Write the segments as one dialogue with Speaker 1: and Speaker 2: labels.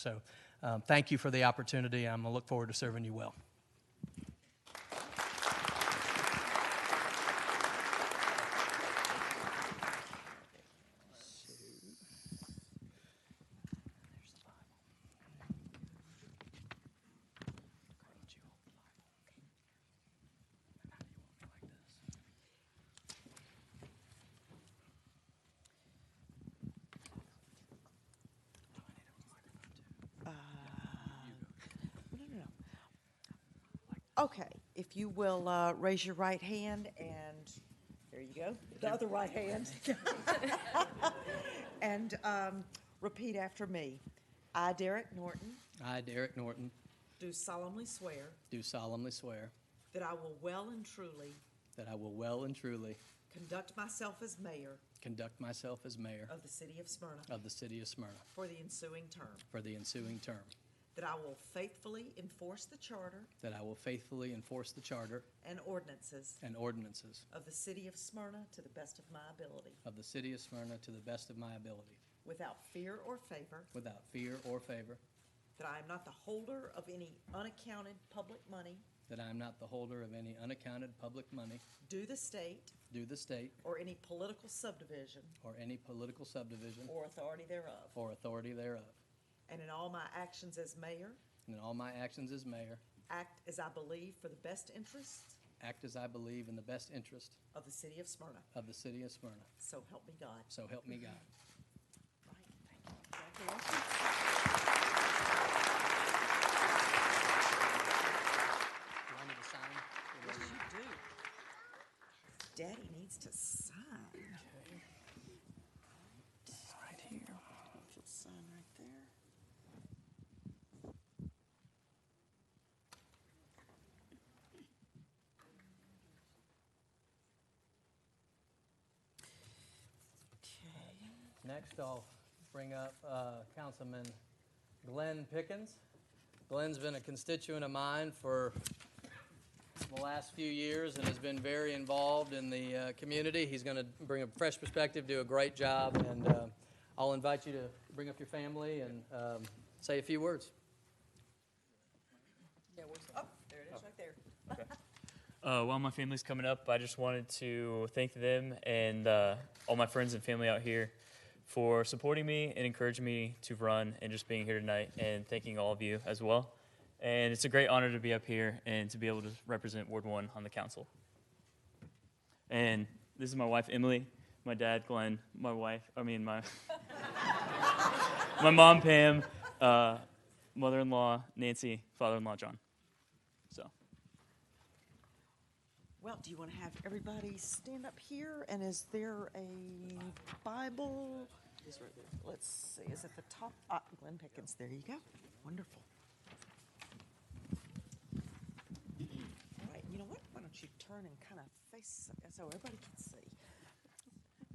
Speaker 1: So um, thank you for the opportunity. I'm going to look forward to serving you well.
Speaker 2: No, no, no. Okay, if you will uh, raise your right hand and, there you go, the other right hand. And um, repeat after me. I, Derek Norton,
Speaker 3: I, Derek Norton,
Speaker 2: do solemnly swear
Speaker 3: do solemnly swear
Speaker 2: that I will well and truly
Speaker 3: that I will well and truly
Speaker 2: conduct myself as mayor
Speaker 3: conduct myself as mayor
Speaker 2: of the city of Smyrna
Speaker 3: of the city of Smyrna
Speaker 2: for the ensuing term,
Speaker 3: for the ensuing term,
Speaker 2: that I will faithfully enforce the charter
Speaker 3: that I will faithfully enforce the charter
Speaker 2: and ordinances
Speaker 3: and ordinances
Speaker 2: of the city of Smyrna to the best of my ability,
Speaker 3: of the city of Smyrna to the best of my ability,
Speaker 2: without fear or favor,
Speaker 3: without fear or favor,
Speaker 2: That I am not the holder of any unaccounted public money
Speaker 3: that I am not the holder of any unaccounted public money
Speaker 2: due the state
Speaker 3: due the state
Speaker 2: or any political subdivision
Speaker 3: or any political subdivision
Speaker 2: or authority thereof.
Speaker 3: or authority thereof,
Speaker 2: And in all my actions as mayor,
Speaker 3: and in all my actions as mayor,
Speaker 2: act as I believe for the best interests
Speaker 3: act as I believe in the best interest
Speaker 2: of the city of Smyrna.
Speaker 3: of the city of Smyrna.
Speaker 2: So help me God.
Speaker 3: So help me God.
Speaker 2: Right, thank you. Congratulations.
Speaker 3: Do I need to sign?
Speaker 2: Yes, you do. Daddy needs to sign. Right here. If you'll sign right there. Okay.
Speaker 3: Next, I'll bring up uh, Councilman Glenn Pickens. Glenn's been a constituent of mine for the last few years and has been very involved in the uh, community. He's going to bring a fresh perspective, do a great job, and uh, I'll invite you to bring up your family and um, say a few words.
Speaker 2: Yeah, where's, oh, there it is, right there.
Speaker 4: Uh, while my family's coming up, I just wanted to thank them and uh, all my friends and family out here for supporting me and encouraging me to run and just being here tonight and thanking all of you as well. And it's a great honor to be up here and to be able to represent Ward 1 on the council. And this is my wife, Emily, my dad, Glenn, my wife, I mean, my, my mom, Pam, uh, mother in law, Nancy, father in law, John. So.
Speaker 2: Well, do you want to have everybody stand up here? And is there a Bible? Let's see, is it the top? Ah, Glenn Pickens, there you go. Wonderful. All right, you know what? Why don't you turn and kind of face so everybody can see?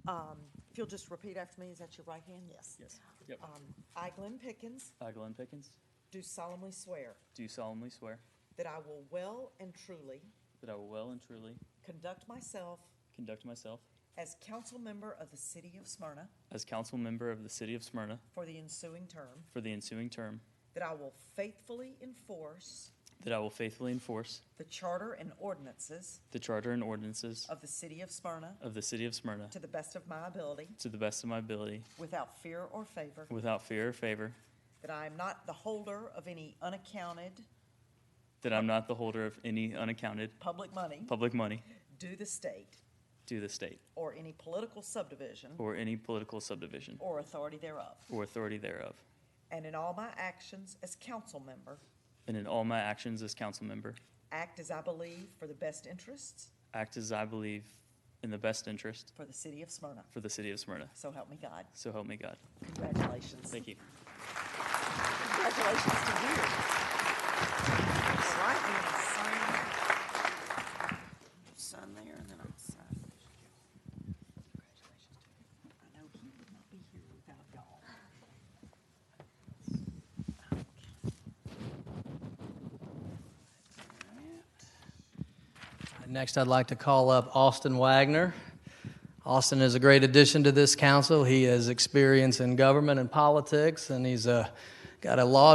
Speaker 2: Um, if you'll just repeat after me, is that your right hand? Yes.
Speaker 4: Yes. Yep.
Speaker 2: Um, I, Glenn Pickens,
Speaker 4: I, Glenn Pickens,
Speaker 2: do solemnly swear
Speaker 4: do solemnly swear
Speaker 2: that I will well and truly
Speaker 4: that I will well and truly
Speaker 2: conduct myself
Speaker 4: conduct myself
Speaker 2: As council member of the city of Smyrna
Speaker 4: as council member of the city of Smyrna
Speaker 2: for the ensuing term,
Speaker 4: for the ensuing term,
Speaker 2: that I will faithfully enforce
Speaker 4: that I will faithfully enforce
Speaker 2: the charter and ordinances
Speaker 4: the charter and ordinances
Speaker 2: of the city of Smyrna
Speaker 4: of the city of Smyrna
Speaker 2: to the best of my ability,
Speaker 4: to the best of my ability,
Speaker 2: without fear or favor,
Speaker 4: without fear or favor,
Speaker 2: that I am not the holder of any unaccounted
Speaker 4: that I'm not the holder of any unaccounted
Speaker 2: public money
Speaker 4: public money
Speaker 2: due the state
Speaker 4: due the state
Speaker 2: or any political subdivision
Speaker 4: or any political subdivision
Speaker 2: or authority thereof,
Speaker 4: or authority thereof,
Speaker 2: and in all my actions as council member,
Speaker 4: and in all my actions as council member,
Speaker 2: act as I believe for the best interests
Speaker 4: act as I believe in the best interest
Speaker 2: for the city of Smyrna.
Speaker 4: for the city of Smyrna.
Speaker 2: So help me God.
Speaker 4: So help me God.
Speaker 2: Congratulations.
Speaker 4: Thank you.
Speaker 2: Congratulations to you. All right, you can sign, sign there, and then I'll sign. Congratulations to you. I know he would not be here without y'all.
Speaker 3: Next, I'd like to call up Austin Wagner. Austin is a great addition to this council. He has experience in government and politics, and he's uh, got a lot